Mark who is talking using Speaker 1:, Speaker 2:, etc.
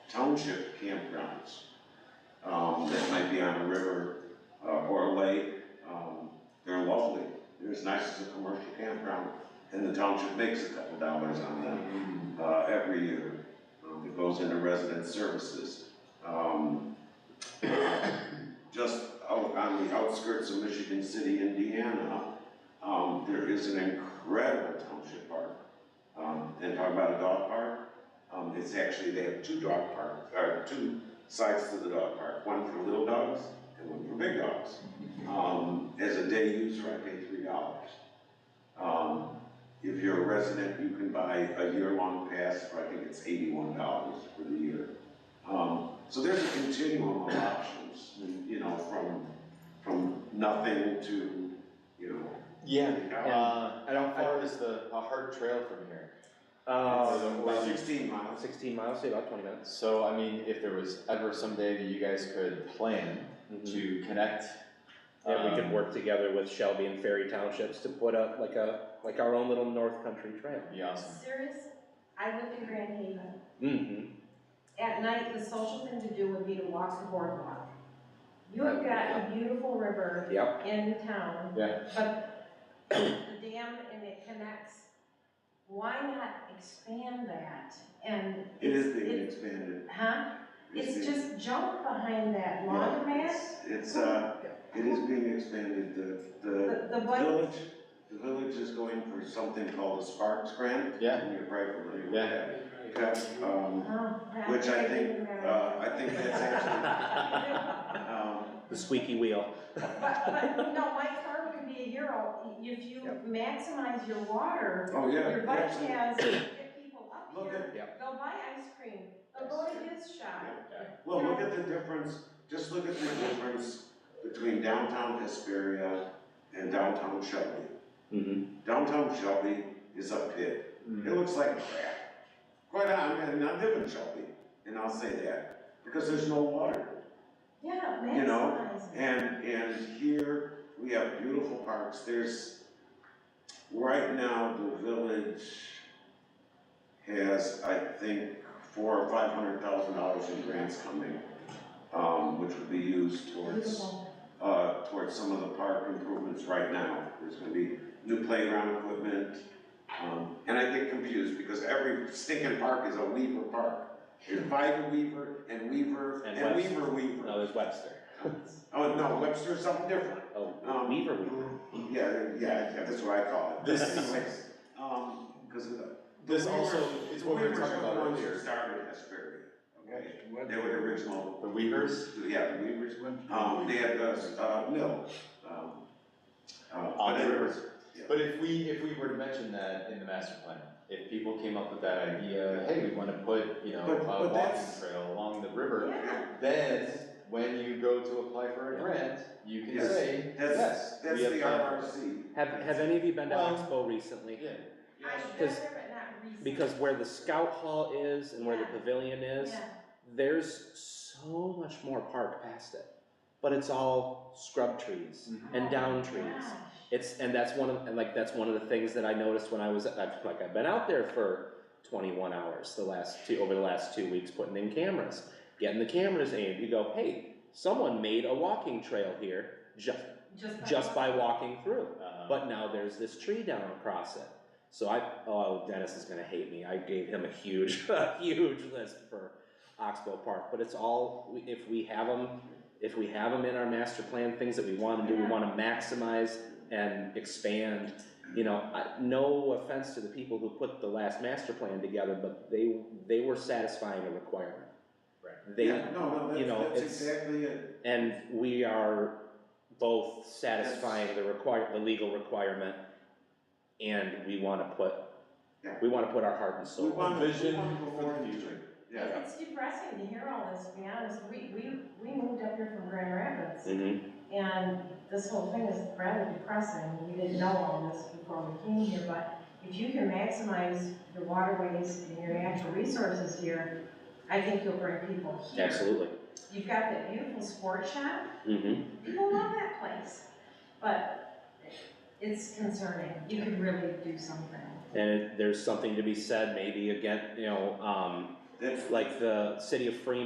Speaker 1: township campgrounds, um, that might be on a river, uh, or a lake. Um, they're lovely, they're as nice as a commercial campground, and the township makes a couple dollars on them uh, every year. Um, It goes into resident services. Um, Just out on the outskirts of Michigan City, Indiana, um, there is an incredible township park. Um, And talk about a dog park, um, it's actually, they have two dog parks, or two sides to the dog park, one for little dogs and one for big dogs. Um, As a day user, I pay three dollars. Um, if you're a resident, you can buy a year-long pass for, I think it's eighty-one dollars for the year. Um, so there's a continuum of options, you know, from, from nothing to, you know.
Speaker 2: Yeah,
Speaker 1: Yeah.
Speaker 2: uh,
Speaker 3: And how far is the, a hard trail from here?
Speaker 4: Oh,
Speaker 2: uh,
Speaker 1: About
Speaker 2: about
Speaker 1: sixteen miles.
Speaker 2: sixteen miles, say about twenty minutes.
Speaker 3: So, I mean, if there was ever someday that you guys could plan
Speaker 4: Mm-hmm.
Speaker 3: to connect.
Speaker 4: Yeah, we could
Speaker 3: um,
Speaker 4: work together with Shelby and Ferry Townships to put up like a, like our own little North Country trail.
Speaker 3: Be awesome.
Speaker 5: Serious, I live in Grand Haven.
Speaker 4: Mm-hmm.
Speaker 5: At night, the social thing to do would be to walk the boardwalk. You have got a beautiful river
Speaker 4: Yep.
Speaker 5: in town.
Speaker 3: Yeah.
Speaker 5: But the dam and it connects, why not expand that and?
Speaker 1: It is
Speaker 5: it's-
Speaker 1: being
Speaker 5: it's-
Speaker 1: expanded.
Speaker 5: Huh? It's
Speaker 1: being-
Speaker 5: just junk behind that
Speaker 1: yeah,
Speaker 5: laundromat,
Speaker 1: it's- It's, uh, it is being expanded, the, the
Speaker 5: the, the one,
Speaker 1: village, the village is going for something called a Sparks Grant.
Speaker 3: Yeah.
Speaker 1: And you're probably familiar with
Speaker 3: Yeah.
Speaker 1: that. That's, um,
Speaker 5: oh, God.
Speaker 1: Which I think,
Speaker 5: didn't remember.
Speaker 1: Uh, I think that's actually,
Speaker 5: But,
Speaker 1: um,
Speaker 4: The squeaky wheel.
Speaker 5: but, no, my farm can be a year old, if you
Speaker 4: Yep.
Speaker 5: maximize your water,
Speaker 1: oh, yeah.
Speaker 5: Your bike
Speaker 1: absolutely.
Speaker 5: has, get people up
Speaker 1: Look
Speaker 5: here,
Speaker 1: at,
Speaker 5: they'll buy ice cream, they'll go to his shop.
Speaker 1: well, look at the difference, just look at the difference between downtown Hesperia and downtown Shelby.
Speaker 4: Mm-hmm.
Speaker 1: Downtown Shelby is a pit,
Speaker 3: Mm.
Speaker 1: it looks like crap. Quite honestly, and I live in Shelby, and I'll say that, because there's no water.
Speaker 5: Yeah,
Speaker 1: You know,
Speaker 5: maximize it.
Speaker 1: And, and here, we have beautiful parks, there's, right now, the village has, I think, four or five hundred thousand dollars in grants coming, um, which would be used towards,
Speaker 5: Beautiful.
Speaker 1: uh, towards some of the park improvements right now. There's gonna be new playground equipment, um, and I get confused because every stinking park is a Weaver park. There's Vida Weaver and Weaver
Speaker 4: And
Speaker 1: and
Speaker 4: Webster.
Speaker 1: Weaver Weaver.
Speaker 4: No, there's Webster.
Speaker 1: Oh, no, Webster's something different.
Speaker 4: Oh,
Speaker 1: Um, mm-hmm.
Speaker 4: Weaver Weaver.
Speaker 1: Yeah, yeah, yeah, that's what I call it.
Speaker 3: This-
Speaker 1: Anyways, um, cause of the.
Speaker 3: This
Speaker 1: the
Speaker 3: also
Speaker 1: Weavers-
Speaker 3: is what we were
Speaker 1: Weavers
Speaker 3: talking
Speaker 1: are the
Speaker 3: about
Speaker 1: ones who
Speaker 3: earlier.
Speaker 1: Started Hesperia, okay? They were the original.
Speaker 3: The Weavers,
Speaker 1: Yeah, the Weavers, um, they had the, uh, mill, um. uh,
Speaker 3: On
Speaker 1: but
Speaker 3: the
Speaker 1: it-
Speaker 3: river.
Speaker 1: yeah.
Speaker 3: but if we, if we were to mention that in the master plan, if people came up with that idea, hey, we wanna put, you know,
Speaker 1: But-
Speaker 3: a
Speaker 1: but
Speaker 3: walking
Speaker 1: that's-
Speaker 3: trail along the river.
Speaker 5: Yeah,
Speaker 3: Then, when you go to apply for a grant, you can
Speaker 1: Yes.
Speaker 3: say,
Speaker 1: That's,
Speaker 3: yes,
Speaker 1: that's
Speaker 3: we
Speaker 1: the
Speaker 3: applied."
Speaker 1: RRC.
Speaker 4: Have, have any of you been to
Speaker 3: Well-
Speaker 4: Expo recently?
Speaker 3: Yeah,
Speaker 5: I've been
Speaker 4: Because-
Speaker 5: there, but not recently.
Speaker 4: Because where the scout hall is and where the
Speaker 5: Yeah.
Speaker 4: pavilion is,
Speaker 5: Yeah,
Speaker 4: there's so much more park past it. But it's all scrub trees
Speaker 3: Mhm.
Speaker 4: and down
Speaker 5: Oh gosh.
Speaker 4: trees. It's, and that's one of, and like, that's one of the things that I noticed when I was, I've, like, I've been out there for twenty-one hours the last two, over the last two weeks, putting in cameras, getting the cameras aimed, you go, hey, someone made a walking trail here, just,
Speaker 5: Just.
Speaker 4: just by walking through,
Speaker 1: Mm-hmm.
Speaker 3: uh,
Speaker 4: but now there's this tree down across it. So I, oh, Dennis is gonna hate me, I gave him a huge, a huge list for Oxbow Park, but it's all, if we have them, if we have them in our master plan, things that we wanna do, we
Speaker 5: Yeah.
Speaker 4: wanna maximize and expand. You know, I, no offense to the people who put the last master plan together, but they, they were satisfying a requirement.
Speaker 3: Right.
Speaker 4: They,
Speaker 1: Yeah, no,
Speaker 4: you know,
Speaker 1: no, that's, that's
Speaker 4: it's-
Speaker 1: exactly it.
Speaker 4: and we are both satisfying the require, the legal requirement, and we wanna put,
Speaker 1: Yeah.
Speaker 4: we wanna put our heart and
Speaker 1: We
Speaker 4: soul.
Speaker 1: want, we
Speaker 3: vision
Speaker 1: want to
Speaker 3: for
Speaker 1: go
Speaker 3: the
Speaker 1: more into
Speaker 3: future.
Speaker 1: it. Yeah.
Speaker 5: It- It's depressing to hear all this, to be honest, we, we, we moved up here from Grand Rapids,
Speaker 4: Mhm.
Speaker 5: and this whole thing is rather depressing, we didn't know all this before we came here, but if you can maximize your waterways and your natural resources here, I think you'll bring people here.
Speaker 4: absolutely,
Speaker 5: You've got that beautiful sport shop,
Speaker 4: hmm
Speaker 5: people love that place, but it's concerning, you could really do something.
Speaker 4: and it- there's something to be said, maybe again, you know, um,
Speaker 1: That's
Speaker 4: like the city of Freeman